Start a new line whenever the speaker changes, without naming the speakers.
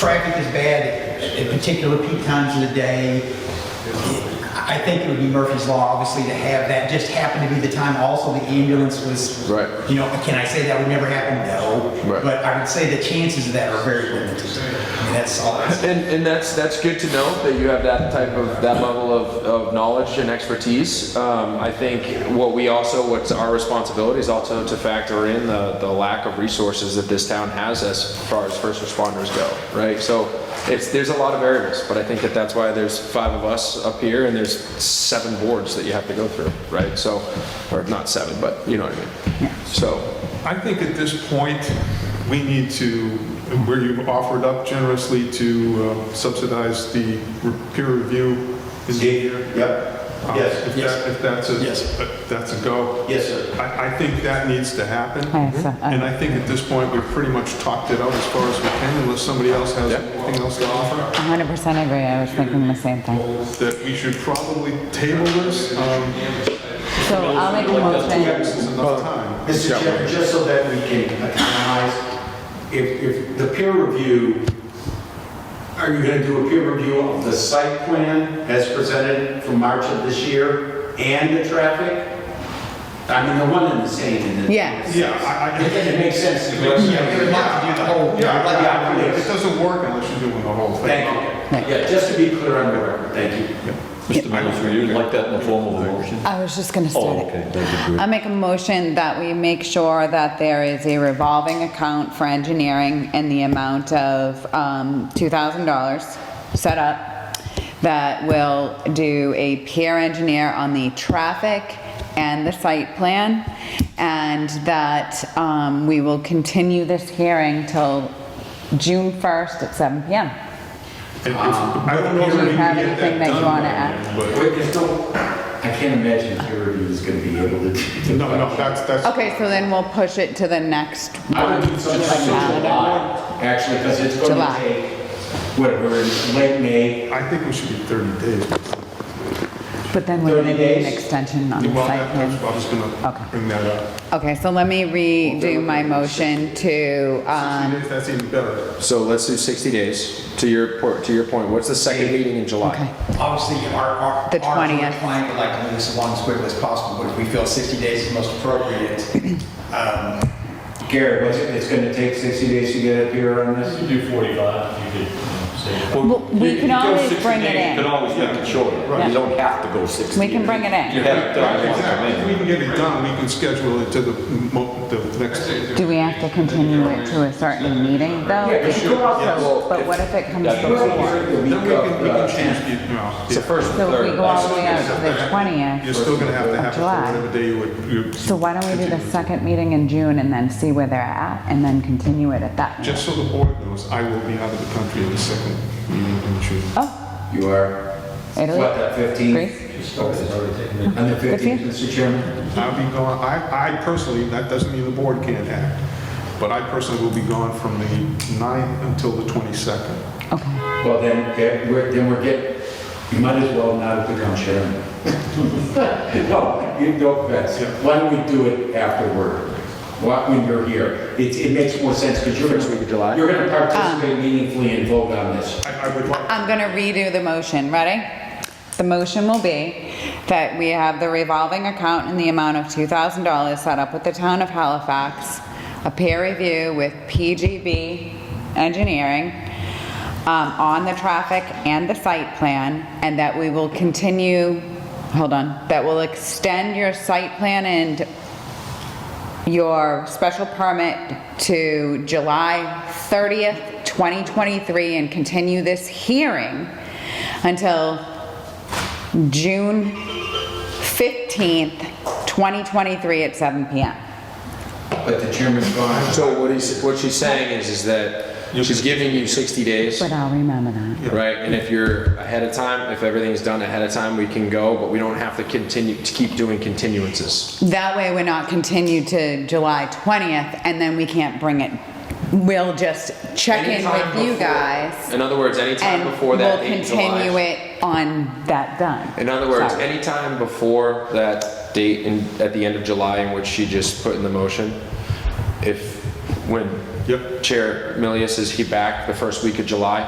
Traffic is bad at- at particular peak times of the day. I think it would be Murphy's Law, obviously, to have that just happen to be the time also the ambulance was.
Right.
You know, can I say that would never happen? No.
Right.
But I would say the chances of that are very limited. And that's all I say.
And, and that's that's good to know that you have that type of that level of, of knowledge and expertise. Um, I think what we also what's our responsibility is also to factor in the, the lack of resources that this town has as far as first responders go, right? So it's there's a lot of variables, but I think that that's why there's five of us up here and there's seven boards that you have to go through, right? So or not seven, but you know what I mean. So
I think at this point, we need to, where you've offered up generously to uh, subsidize the peer review. is-
Yep,
uh,
yes,
If that, if that's a,
Yes.
if that's a go.
yes, sir.
I, I think that needs to happen.
I so- I-
And I think at this point, we've pretty much talked it out as far as we can, unless somebody else has
Yeah.
anything else to offer,
100% agree, I was thinking the same thing.
that we should probably table this. Um,
So I'll make a
Two
motion,
X is enough time.
Mr. Chairman, just so that we can economize, if, if the peer review, are you gonna do a peer review of the site plan as presented from March of this year and the traffic? I mean, they're one and the same in the.
yes.
Yeah, I, I,
I think it makes sense to go.
Yeah, we would like to do the whole.
yeah,
I'd like the
yeah,
opportunity.
it doesn't work unless you're doing the whole thing.
Thank
Right.
you. Yeah, just to be clear on the record, thank you.
Mr. Mills, would you like that in the form of a motion?
I was just gonna start
Oh,
it.
okay, that'd be
I
great.
make a motion that we make sure that there is a revolving account for engineering in the amount of um, $2,000 set up that will do a peer engineer on the traffic and the site plan, and that um, we will continue this hearing till June 1st at 7 PM.
And if- I don't know
Do
that
you
we
have
can get
anything that you
done
wanna
by
add?
then, but-
Wait, just don't, I can't imagine peer review is gonna be able to. do
No, no, that's, that's.
Okay, so then we'll push it to the next
I
one.
would do
just
something
like
in
that.
July, actually, because it's going
July.
to take, what, we're in late May.
I think we should be 30 days.
But then we're gonna
30
need an
days?
extension on the
Well,
site
that- that's,
plan.
I was
Okay.
gonna bring that up.
Okay, so let me redo my motion to,
60
um,
days, That's even better.
so let's do 60 days to your por- to your point. What's the second meeting in July?
okay,
Obviously, our, our.
The
our
20th.
Client would like to move this along as quickly as possible, but if we feel 60 days is most appropriate, um,
Gary, what's it, it's going to take 60 days to get up here on this?
Do 45, you could um, say.
Well, we
You
can
go
always
60
bring it
days, You
in.
can always make it shorter.
Yeah.
You don't have to go 60.
we can bring it
You
in.
have it done
Right,
once a
exactly.
month.
If we can get it done, we can schedule it to the, mo- the next.
Do we have to continue it to a certain meeting though?
Yeah, you could also-
But what if it comes
Yeah.
before?
Then
Then we can, we
uh,
can change the, no.
It's the first and
So if
third.
we go all the way out to the
You're
20th,
still gonna have to have it
July.
for whatever day you would. you-
so why don't we do the second meeting in June and then see where they're at and then continue it at that meeting?
Just so the board knows, I will be out of the country in the second meeting in June.
Oh,
You are, what,
Italy,
that 15th?
Greece,
On the 15th,
Fifteen?
Mr. Chairman?
I'll be gone, I, I personally, that doesn't mean the board can't act, but I personally will be gone from the 9th until the 22nd.
okay.
Well, then, that- we're- then we're getting, you might as well not become chairman. No, you no offense. Why don't we do it afterward, Why- when you're here? It, it makes more sense because you're.
First week of July. Ah.
You're going to participate meaningfully and vote on this.
I, I would like,
I'm gonna redo the motion, ready? The motion will be that we have the revolving account in the amount of two thousand dollars set up with the town of Halifax, a peer review with PGB Engineering, um, on the traffic and the site plan, and that we will continue, hold on, that will extend your site plan and your special permit to July 30th, 2023, and continue this hearing until June 15th, 2023 at 7 PM.
But the chairman's gone.
So what he's, what she's saying is, is that she's giving you 60 days,
But uh, I'll remember that.
right? And if you're ahead of time, if everything's done ahead of time, we can go, but we don't have to continue, to keep doing continuances.
That way, we're not continued to July 20th, and then we can't bring it. We'll just check in
Anytime
with you
before-
guys,
In other words, anytime
and
before
we'll
that date in
continue
July.
it on that done.
In other words,
Sorry.
anytime before that date in, at the end of July in which she just put in the motion, if, when
Yep.
Chair Milius, is he back the first week of July?